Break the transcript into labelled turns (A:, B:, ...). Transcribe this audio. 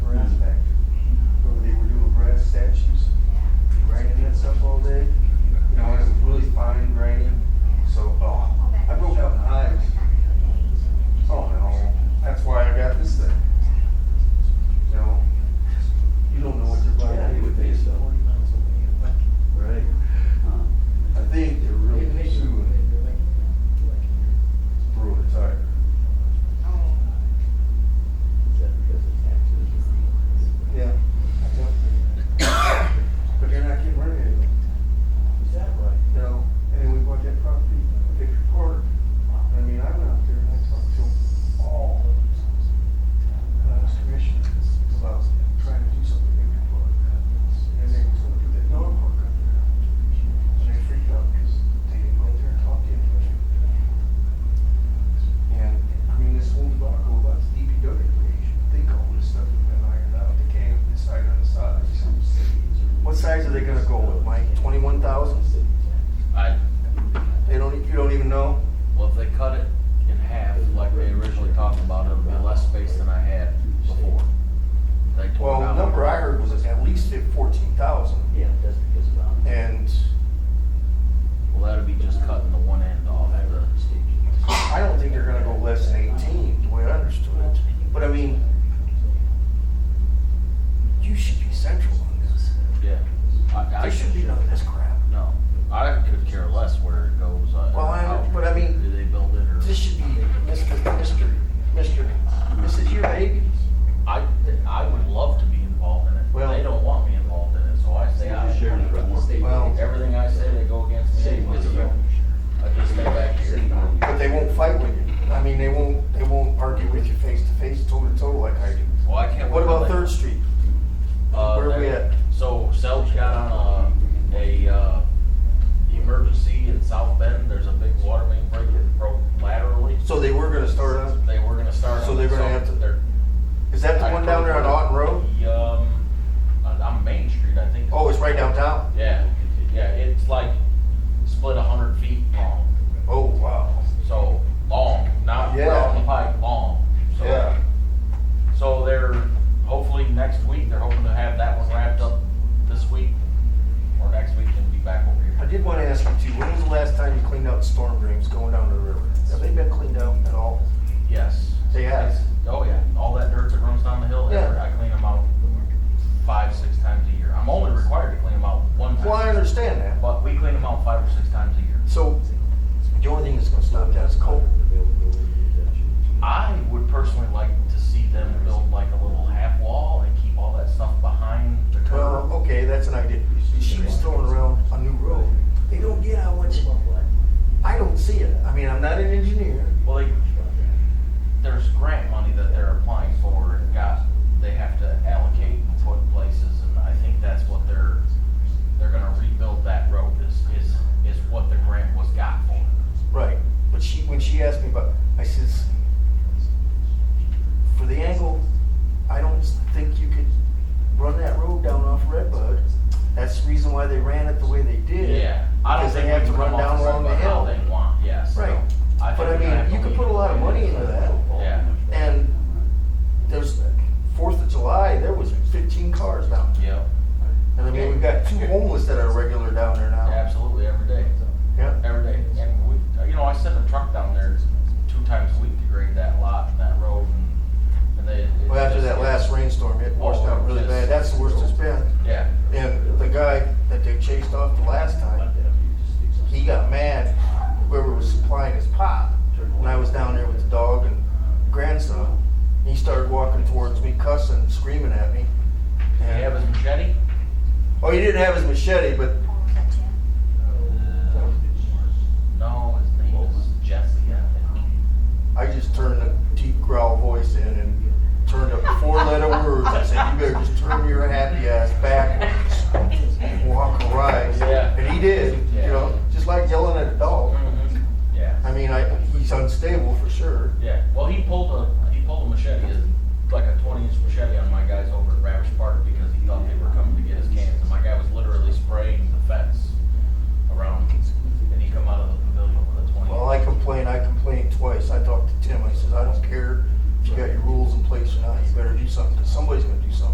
A: uh, Uh, fourteen thousand,
B: Yeah, that's because of the.
A: and
C: Well, that'd be just cutting the one end off the,
A: I don't think they're gonna go less than eighteen, the way I understood it. But I mean, you should be central on this.
C: yeah.
A: I should be none of this crap.
C: No, I could care less where it goes. uh,
A: Well, I-
C: how-
A: but I mean-
C: Do they build it or?
A: This should be Mr. Mr. Mr. This is your baby.
C: I, I would love to be involved in it.
A: Well-
C: They don't want me involved in it, so I say I.
D: Sharing it with the state.
A: Well-
C: Everything I say, they go against me.
D: Same with you.
C: I just stay back here.
A: But they won't fight with you. I mean, they won't, they won't argue with you face to face, toe to toe like I do.
C: Well, I can't.
A: What
C: wait till
A: about
C: they-
A: Third Street?
C: Uh,
A: Where are we
C: there-
A: at?
C: So Selge got on a, a, uh, emergency in South Bend, there's a big water main break that broke laterally.
A: So they were gonna start up,
C: They were gonna start.
A: So
C: on
A: they're gonna
C: some-
A: have to-
C: they're-
A: is that the one down there on Otten Road?
C: The, Um, on, on Main Street, I think.
A: Oh, it's right downtown?
C: Yeah, yeah, it's like split a hundred feet long,
A: Oh, wow.
C: so long, not
A: Yeah.
C: down the pipe, long. So-
A: Yeah.
C: So they're, hopefully next week, they're hoping to have that one wrapped up this week, or next week and be back over
A: I
C: here.
A: did wanna ask you too, when was the last time you cleaned out storm drains going down to the river? Have they been cleaned out at all?
C: Yes.
A: They have?
C: Oh, yeah, all that dirt that runs down the hill,
A: Yeah.
C: I clean them out five, six times a year. I'm only required to clean them out one time.
A: Well, I understand that,
C: But we clean them out five or six times a year.
A: so the only thing that's gonna stop that is coal.
C: I would personally like to see them build like a little half wall and keep all that stuff behind the
A: Well,
C: curb.
A: okay, that's an idea. She was throwing around a new road. They don't get how much, I don't see it. I mean, I'm not an engineer.
C: Well, they, there's grant money that they're applying for and got, they have to allocate and put places, and I think that's what they're, they're gonna rebuild that road is, is, is what the grant was got for.
A: Right, but she, when she asked me about, I says, for the angle, I don't think you could run that road down off Redbud. That's the reason why they ran it the way they did.
C: Yeah, I don't
A: Because they
C: think
A: have
C: we
A: to
C: can
A: run
C: come
A: down
C: off the
A: along the
C: road how
A: hill.
C: they want, yes. so
A: Right.
C: I
A: But I
C: think we
A: mean,
C: have to
A: you could
C: leave
A: put a
C: it
A: lot of
C: the way
A: money
C: it is.
A: into that.
C: Yeah.
A: And there's, Fourth of July, there was fifteen cars down.
C: Yep,
A: And I mean, we've got two homeless that are regular down there now.
C: absolutely, every day,
A: Yeah.
C: every day. And we, you know, I send a truck down there two times a week to grade that lot and that road and, and they. it
A: Well, after
C: just
A: that
C: gets-
A: last rainstorm, it washed out really bad. That's the worst it's been.
C: Yeah,
A: And the guy that they chased off the last time, he got mad, whoever was supplying his pop. And I was down there with the dog and grandson. He started walking towards me cussing, screaming at me.
C: Did he have his machete?
A: Oh, he didn't have his machete, but
C: No, his name was Jesse, I think.
A: I just turned a deep growl voice in and turned a four-letter word